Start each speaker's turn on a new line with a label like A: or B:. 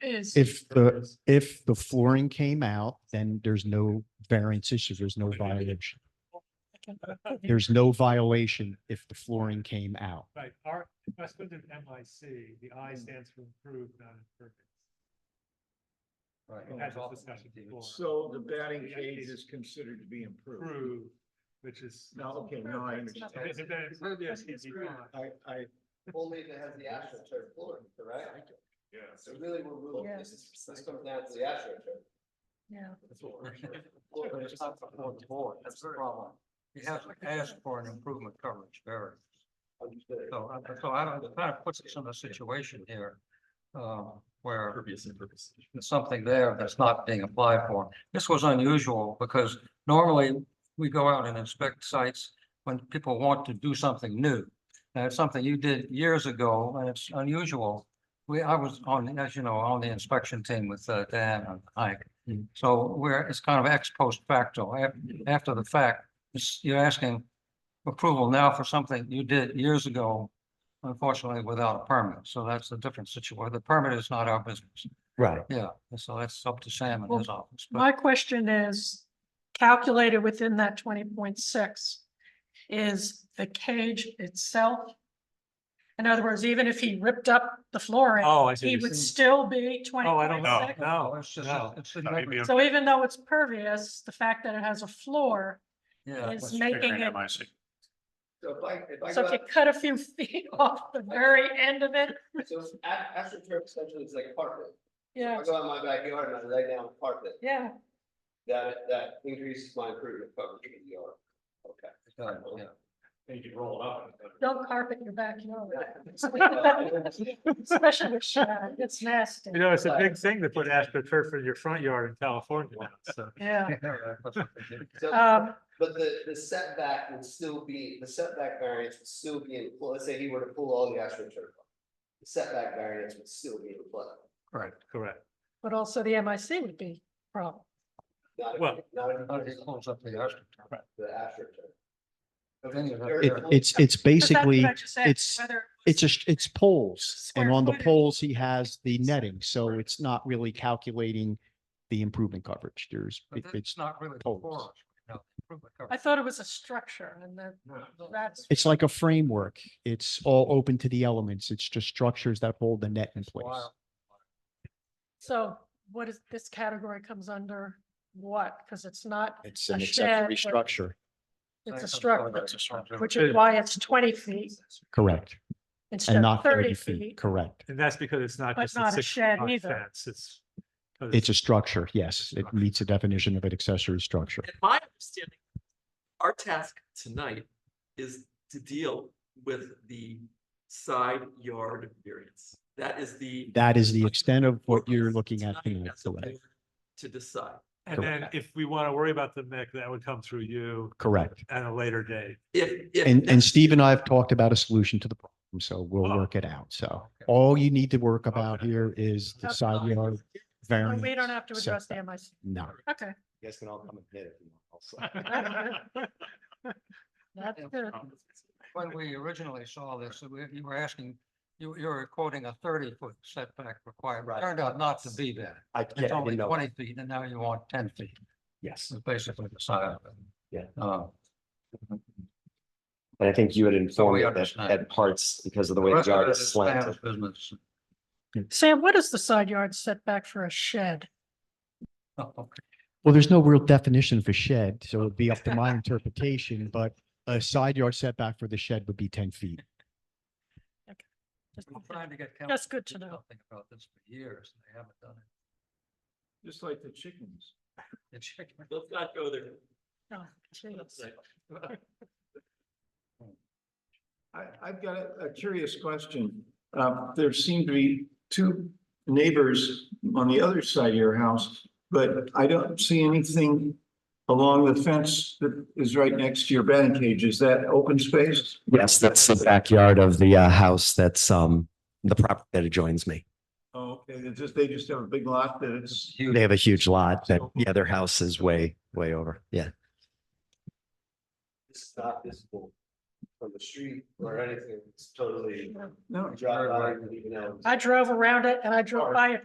A: is.
B: If the, if the flooring came out, then there's no variance issue. There's no violation. There's no violation if the flooring came out.
C: Right, our, if I split it M I C, the I
D: Mm.
C: stands for improved, not imperfect.
D: Oh,
C: We had this discussion before.
D: So the batting
C: Yeah,
D: cage
C: it's
D: is considered to be improved.
C: Improved, which is.
D: Now, okay, now I understand.
C: Okay, so then it's really a CGI.
D: I, I,
E: Only if it has the astroturf floor, correct?
D: yeah,
E: So really, we're moving,
A: Yeah.
E: this, is- this comes down to the astroturf.
A: Yeah.
D: that's what we're.
E: Floor, but it's not the floor, the floor, that's the problem.
F: You have to ask for an improvement coverage variance.
E: Understood.
F: So, I- so I don't, it kind of puts us in a situation here, um, where there's something there that's not being applied for. This was unusual because normally we go out and inspect sites when people want to do something new. And it's something you did years ago and it's unusual. We, I was on, as you know, on the inspection team with uh, Dan and Ike. So we're, it's kind of ex post facto, af- after the fact, it's- you're asking approval now for something you did years ago, unfortunately without a permit. So that's a different situation. The permit is not our business.
B: Right.
F: Yeah, and so that's up to Sam and
A: Well,
F: his office. But
A: My question is, calculated within that twenty point six, is the cage itself? In other words, even if he ripped up the flooring,
C: Oh, I see.
A: he would still be twenty
C: Oh, I
A: point
C: don't know.
A: six?
C: No,
F: it's just,
C: no.
F: it's a
C: Maybe
F: different-
C: I'm-
A: So even though it's pervious, the fact that it has a floor,
F: yeah.
A: is
F: that's-
A: making it,
C: MIC.
E: So if I, if I
A: so
E: go
A: if you
E: out,
A: cut a few feet off the very end of it,
E: so a- astroturf essentially is like carpet.
A: yeah,
E: I go out in my backyard and I lay down carpet,
A: yeah.
E: that, that increases my improvement coverage in the yard. Okay.
F: yeah, yeah.
C: You could roll it up.
A: Don't carpet your backyard. Especially with shad, it's nasty.
C: You know, it's a big thing to put astroturf in your front yard in California, now, so.
A: Yeah,
F: Yeah, right, that's what they do.
E: So-
A: um,
E: But the, the setback would still be, the setback variance would still be in, pl- let's say he were to pull all the astroturf. off, The setback variance would still be in play.
C: Correct, correct.
A: but also the MIC would be a problem.
E: Not if-
C: Well-
E: Not if he
F: How do you
E: pulls
F: close up the astroturf?
E: the astroturf.
F: But then you have-
E: Or-
B: It, it's, it's
A: 'Cause that's what
B: basically,
A: I just asked,
B: it's-
A: whether it
B: it's
A: was-
B: just, it's poles. And
A: Square
B: on the
A: footage.
B: poles, he has the netting, so it's not really calculating the improvement coverage. There's,
F: But
B: it- it's,
F: that's not really
B: poles.
F: before us. No, improvement
A: I
F: coverage.
A: thought it was a structure and then that's,
B: it's like a framework. It's all open to the elements. It's just structures that hold the net in place.
F: Wow.
A: so what is, this category comes under what? Because it's not,
B: It's
A: A
B: an
A: shed
B: accessory
A: with-
B: structure.
A: it's a
F: That's
A: structure,
F: a structure.
A: which is why it's twenty feet
B: Correct.
A: instead
B: And
A: of
B: not
A: thirty feet.
B: Correct.
C: And that's because it's not
A: But
C: just
A: not
C: a
A: a
C: six
A: shed
C: foot
A: either.
C: fence, it's. 'cause
B: It's a structure. Yes, it meets the definition of an accessory structure.
G: And my understanding, our task tonight is to deal with the side yard variance. That is the.
B: That is the extent of what you're
G: focus
B: looking at
G: tonight
B: tonight.
G: as a
B: correct?
G: board To decide.
C: And then
B: Correct.
C: if we want to worry about the MIC, that would come through you
B: Correct.
C: at a later date.
G: If, if.
B: And, and
G: that's-
B: Steve and I have talked about a solution to the problem, so we'll
C: Oh.
B: work it out. So
F: Okay.
B: all you need to work about
C: Okay.
B: here is the
A: Okay.
B: side yard
A: So
B: variance.
A: We don't have to address the
B: setback.
A: MIC.
B: No,
A: Okay,
D: Guys can all come and hit it.
A: that's good.
D: Oh.
F: When we originally saw this, we- you were asking, you, you were quoting a thirty foot setback requirement.
B: Right.
F: Turned out not to be that.
B: I
F: It's
B: can't,
F: only twenty feet and now you want ten feet.
H: Yes,
F: It's basically the side of it.
H: Yeah.
F: Uh,
H: and I think you had informed
F: we
H: me that,
F: understand.
H: that parts, because of the
F: the
H: way the
F: rest of
H: yard
F: it
H: is
F: is Sam's
H: slanted,
F: Business.
A: Sam, what is the side yard setback for a shed?
B: well, there's no real definition for shed, so it'd be up to my interpretation, but a side yard setback for the shed would be ten feet.
A: Just-
F: I'm trying to get. council
A: That's good
F: do
A: to know.
F: something About this for years, and they haven't done it.
D: Just like the chickens.
F: They check it.
G: Let's not go there.
A: Oh, jeez.
D: I, I've got a- a curious question. Um, there seem to be two neighbors on the other side of your house, but I don't see anything along the fence that is right next to your batting cage. Is that open space?
H: yes, that's the backyard of the uh, house that's, um, the property that adjoins me.
D: Oh, Okay, they just, they just have a big lot that it's.
H: They have a huge lot that, yeah, their house is way, way over, yeah.
E: It's not visible from the street or anything. It's totally.
D: No,
E: Drive by, even out.
A: I drove around it and I drove by it